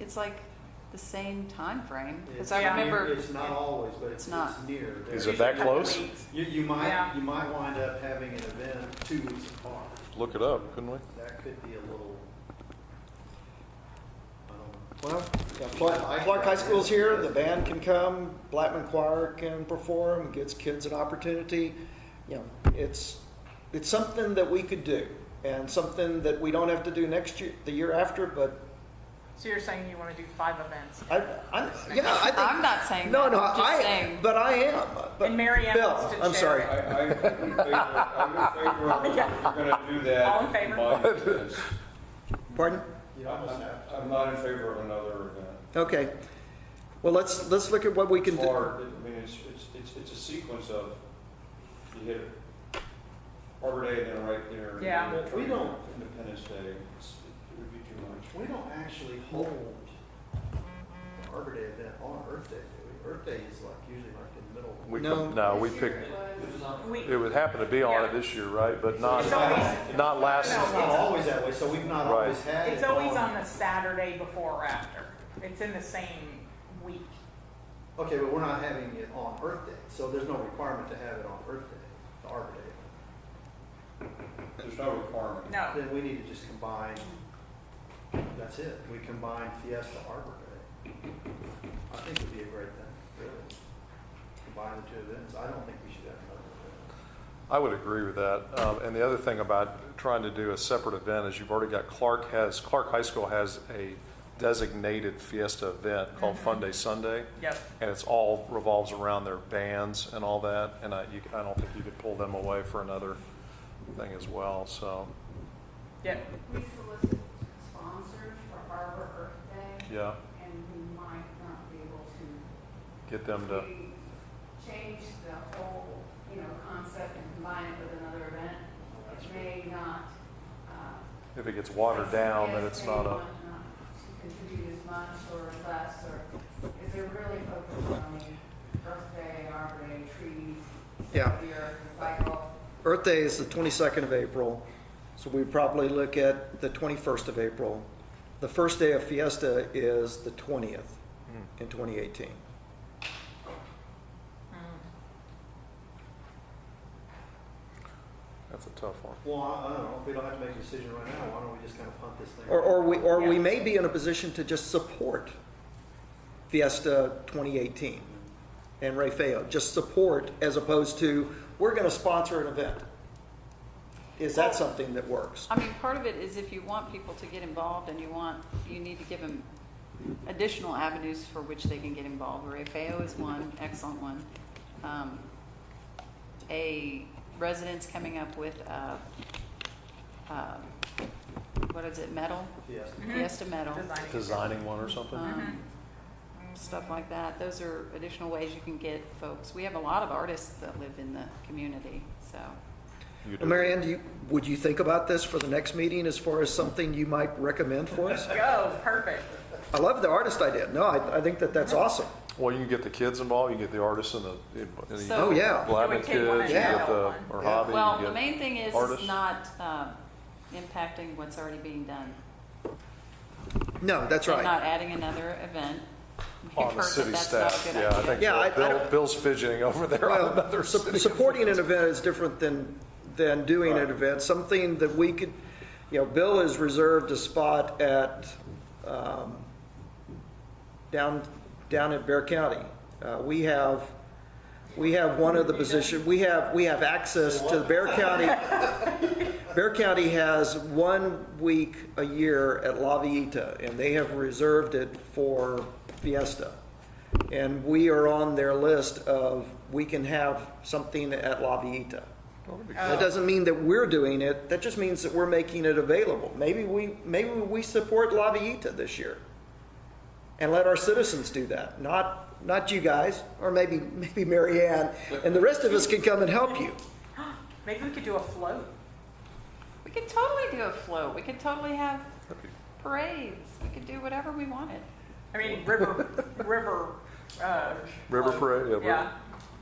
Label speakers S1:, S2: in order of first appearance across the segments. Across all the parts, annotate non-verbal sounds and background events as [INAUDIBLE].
S1: it's like the same time frame. Because
S2: It's
S1: I
S2: near-
S1: remember,
S2: It's not always, but it's,
S1: It's not.
S2: it's near.
S3: Is
S2: There's-
S3: it that close?
S2: You, you might,
S4: Yeah.
S2: you might wind up having an event two weeks apart.
S3: Look it up, couldn't we?
S2: That could be a little, I don't
S5: Well, yeah, Clark, Clark High School's here, the band can come, Blackman Choir can perform, gives kids an opportunity. You know, it's, it's something that we could do and something that we don't have to do next year, the year after, but
S4: So you're saying you want to do five events?
S5: I, I, yeah, I think.
S1: I'm not saying
S5: No,
S1: that,
S5: no,
S1: I'm just
S5: I,
S1: saying.
S5: but I am, but.
S4: And Mary Ann
S5: Bill,
S4: wants to
S5: I'm
S4: share.
S5: sorry.
S6: I, I'm in favor, I'm in favor of, we're gonna do that.
S4: All in favor?
S6: my events.
S5: Pardon?
S2: know. You almost have to.
S6: I'm I'm not in favor of another event.
S5: Okay. Well, let's, let's look at what we can
S6: It's
S5: do.
S6: hard, I mean, it's, it's, it's, it's a sequence of, you hit Arbor Day, then right there. and
S4: Yeah.
S6: then
S2: We don't-
S6: Independence Day, it's, it would be too much.
S2: We don't actually hold the Arbor Day event on Earth Day, do we? Earth Day is like, usually like in the middle.
S3: We
S5: No.
S3: could- No, we picked,
S4: We,
S3: it would happen to be on it this year, right? But not,
S4: it's always,
S3: not
S2: It's
S3: last,
S2: not always that way, so we've not
S3: Right.
S2: always had it
S4: it's always on the Saturday before or after. It's in the same week.
S2: Okay, but we're not having it on Earth Day, so there's no requirement to have it on Earth Day, the Arbor Day.
S6: There's no requirement.
S4: No,
S2: Then we need to just combine, that's it, we combine Fiesta Arbor Day. I think it'd be a great thing, really. Combine the two events, I don't think we should have another event.
S3: I would agree with that. Um, And the other thing about trying to do a separate event is you've already got Clark has, Clark High School has a designated fiesta event called Fun
S4: Mm-hmm.
S3: Day Sunday.
S4: yep.
S3: And it's all revolves around their bands and all that. And I, you, I don't think you could pull them away for another thing as well, so,
S4: Yep.
S7: We solicit sponsors for Arbor Earth Day,
S3: yeah,
S7: and we might not be able to.
S3: get them to.
S7: We Change the whole, you know, concept and combine it with another event. It may not. uh,
S3: If it gets watered down, then it's not a,
S7: Yes, they might not Contribute as much or less, or if they're really focused on the Earth Day, Arbor Day, trees,
S5: Yeah.
S7: the earth cycle.
S5: Earth Day is the 22nd of April, so we probably look at the 21st of April. The first day of Fiesta is the 20th
S3: hmm,
S5: in 2018.
S3: that's a tough one.
S2: Well, I I don't know, if we don't have to make a decision right now, why don't we just kind of punt this thing?
S5: Or, or we, or we
S4: Yeah.
S5: may be in a position to just support Fiesta 2018 and Ray Feo, just support as opposed to, we're going to sponsor an event. Is that something that works?
S1: I mean, part of it is if you want people to get involved and you want, you need to give them additional avenues for which they can get involved. Ray Feo is one, excellent one. Um, a resident's coming up with, uh, uh, what is it, metal?
S2: Fiesta.
S5: Mm-hmm.
S1: Fiesta metal.
S4: Designing.
S3: Designing one or something?
S1: um, stuff like that. Those are additional ways you can get folks. We have a lot of artists that live in the community, so.
S3: You do.
S5: Marianne, do you, would you think about this for the next meeting as far as something you might recommend for us?
S4: Go, Oh, perfect.
S5: I love the artist idea. No, I, I think that that's awesome.
S3: Well, you can get the kids involved, you can get the artists and the, and the
S1: So-
S5: Oh, yeah.
S3: Blackman
S4: It would
S3: kids,
S4: take one
S3: you
S4: and
S3: get
S4: out
S3: the,
S4: one.
S3: or
S5: Yeah.
S3: hobby,
S1: Well,
S3: you
S1: the
S3: get.
S1: main thing is,
S3: artists.
S1: it's not um, impacting what's already being done.
S5: No, that's
S1: And
S5: right.
S1: not adding another event. We've
S3: On the
S1: heard
S3: city
S1: that that's not a
S3: staff,
S1: good
S3: yeah, I
S1: idea.
S3: think
S5: Yeah, I- I
S3: Bill-
S5: don't-
S3: Bill's fidgeting over there
S5: [LAUGHS]
S3: on another
S5: Well, su-
S3: city.
S5: supporting an event is different than, than doing an
S6: Right.
S5: event. Something that we could, you know, Bill has reserved a spot at, um, down, down at Bear County. Uh, we have, we have one of the position, we have, we have access to Bear County. Bear County has one week a year at La Villita, and they have reserved it for Fiesta. And we are on their list of, we can have something at La Villita. That doesn't mean that we're doing it, that just means that we're making it available. Maybe we, maybe we support La Villita this year. And let our citizens do that, not, not you guys, or maybe, maybe Mary Ann, and the rest of us can come and help you.
S4: Maybe we could do a float.
S1: We could totally do a float. We could totally have
S3: That'd be-
S1: parades. We could do whatever we wanted.
S4: I mean,
S3: [LAUGHS]
S4: river, river, uh.
S3: River
S4: float.
S3: parade, yeah,
S4: Yeah,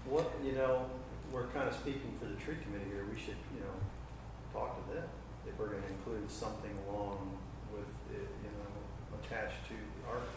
S2: What, you know, we're kind of speaking for the tree committee here, we should, you know, talk to them if we're gonna include something along with, it, you know, attached to the Arbor